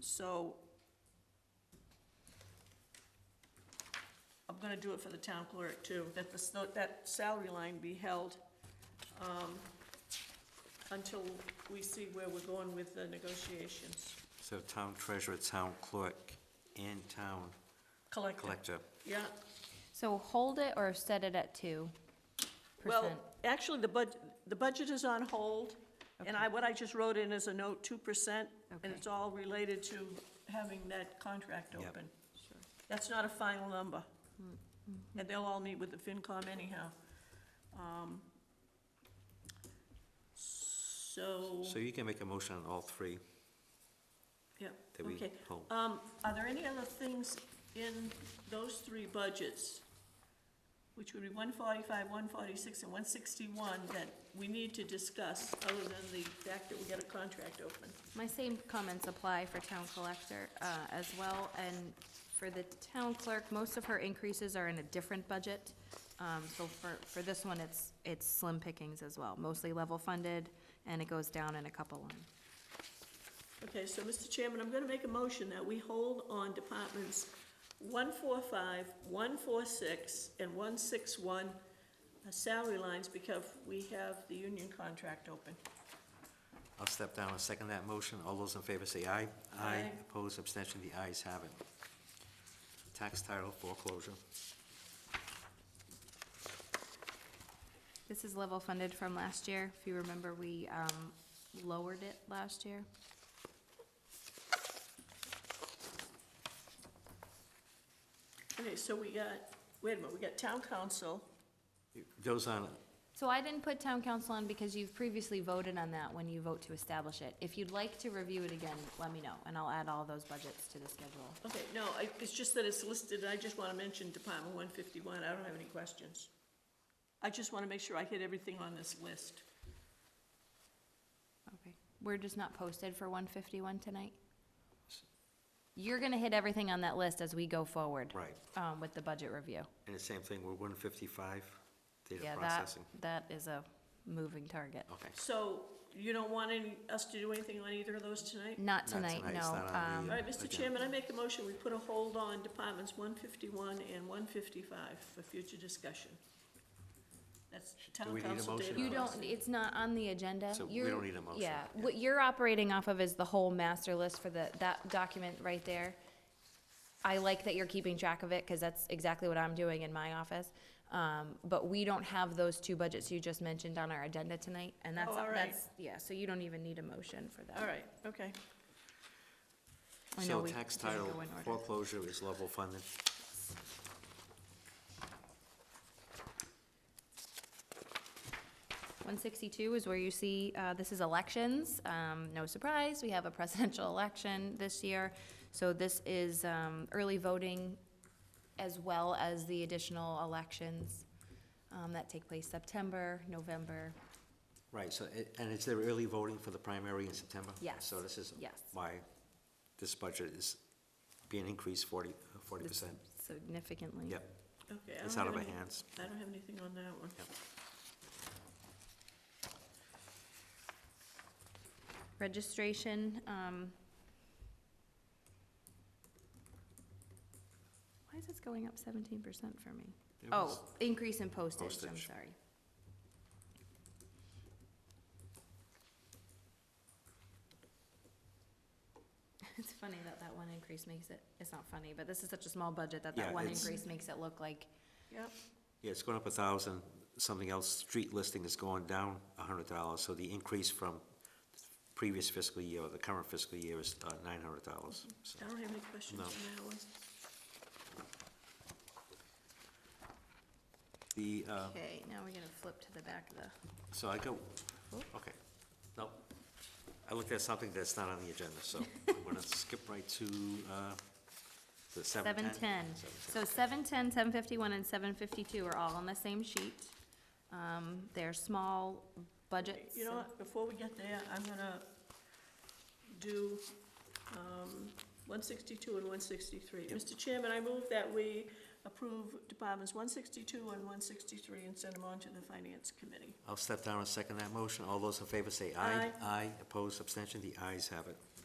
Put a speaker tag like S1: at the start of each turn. S1: So I'm gonna do it for the town clerk too, that the, s- that salary line be held um, until we see where we're going with the negotiations.
S2: So town treasurer, town clerk, and town
S1: Collective,
S2: collector.
S1: yeah.
S3: So hold it or set it at two
S1: Well,
S3: percent?
S1: actually, the budget, the budget is on hold, and I, what I just wrote in is a note, two percent, and
S3: Okay.
S1: it's all related to having that contract
S2: Yep.
S1: open. That's not a final number.
S3: Mm-hmm.
S1: And they'll all meet with the FinCom anyhow. Um, So,
S2: So you can make a motion on all three
S1: yeah,
S2: that we
S1: okay.
S2: hold.
S1: Um, are there any other things in those three budgets, which would be one forty-five, one forty-six, and one sixty-one, that we need to discuss, other than the fact that we got a contract open?
S3: My same comments apply for town collector, uh, as well, and for the town clerk, most of her increases are in a different budget. Um, so for, for this one, it's, it's slim pickings as well, mostly level funded, and it goes down in a couple lines.
S1: Okay, so, Mr. Chairman, I'm gonna make a motion that we hold on departments one four five, one four six, and one six one uh, salary lines, because we have the union contract open.
S2: I'll step down and second that motion. All those in favor say aye.
S1: Aye.
S2: Opposed, abstention, the ayes have it. Tax title foreclosure.
S3: This is level funded from last year. If you remember, we, um, lowered it last year.
S1: Okay, so we got, wait a minute, we got town council,
S2: Those on,
S3: So I didn't put town council on because you've previously voted on that when you vote to establish it. If you'd like to review it again, let me know, and I'll add all those budgets to the schedule.
S1: Okay, no, I, it's just that it's listed, I just wanna mention Department one fifty-one, I don't have any questions. I just wanna make sure I hit everything on this list.
S3: Okay. We're just not posted for one fifty-one tonight? You're gonna hit everything on that list as we go forward.
S2: right,
S3: Um, with the budget review.
S2: and the same thing, we're one fifty-five, data
S3: Yeah, that,
S2: processing. Oh,
S3: that is a moving target.
S2: Okay,
S1: So, you don't want any, us to do anything on either of those tonight?
S3: Not
S2: Not tonight,
S3: tonight,
S2: it's
S3: no.
S2: not on
S3: Um,
S2: the,
S1: All right, Mr.
S2: Okay.
S1: Chairman, I make a motion, we put a hold on Departments one fifty-one and one fifty-five for future discussion. That's
S2: Do
S1: town
S2: we need a
S1: council
S2: motion
S1: data.
S2: on
S3: You don't,
S1: processing.
S3: it's not on the agenda.
S2: So we
S3: You're-
S2: don't need a motion.
S3: Yeah, what you're operating off of is the whole master list for the, that document right there. I like that you're keeping track of it, because that's exactly what I'm doing in my office. Um, but we don't have those two budgets you just mentioned on our agenda tonight, and that's,
S1: Oh, all right.
S3: that's, yeah, so you don't even need a motion for that.
S1: All right, okay.
S3: I know
S2: So
S3: we
S2: tax
S3: didn't go
S2: title
S3: in order.
S2: foreclosure is level funded.
S3: One sixty-two is where you see, uh, this is elections. Um, no surprise, we have a presidential election this year. So this is, um, early voting as well as the additional elections, um, that take place September, November.
S2: Right, so, it- and is there early voting for the primary in September?
S3: Yes,
S2: So this is
S3: yes.
S2: why this budget is being increased forty, forty percent.
S3: Significantly.
S2: Yep,
S1: Okay, I
S2: it's
S1: don't
S2: out of
S1: have
S2: our
S1: any-
S2: hands.
S1: I don't have anything on that one.
S3: Registration, um. Why is this going up seventeen percent for me?
S2: It
S3: Oh,
S2: was-
S3: increase in postage, I'm
S2: Postage.
S3: sorry. It's funny that that one increase makes it, it's not funny, but this is such a small budget that
S2: Yeah,
S3: that one
S2: it's-
S3: increase makes it look like,
S1: Yep,
S2: Yeah, it's going up a thousand, something else, street listing is going down a hundred dollars, so the increase from previous fiscal year, or the current fiscal year is uh, nine hundred dollars, so.
S1: I don't have any questions
S2: No.
S1: on that one.
S2: The, uh,
S3: okay, now we're gonna flip to the back of the,
S2: so I go,
S3: Oh.
S2: okay, no, I looked at something that's not on the agenda, so I'm gonna skip right to, uh, the seven ten.
S3: seven ten. So seven ten, seven fifty-one, and seven fifty-two are all on the same sheet. Um, they're small budgets.
S1: You know
S3: and-
S1: what, before we get there, I'm gonna do, um, one sixty-two and one sixty-three. Mr. Chairman, I move that we approve departments one sixty-two and one sixty-three and send them on to the finance committee.
S2: I'll step down and second that motion, all those in favor say aye. Aye, opposed, abstention, the ayes have it.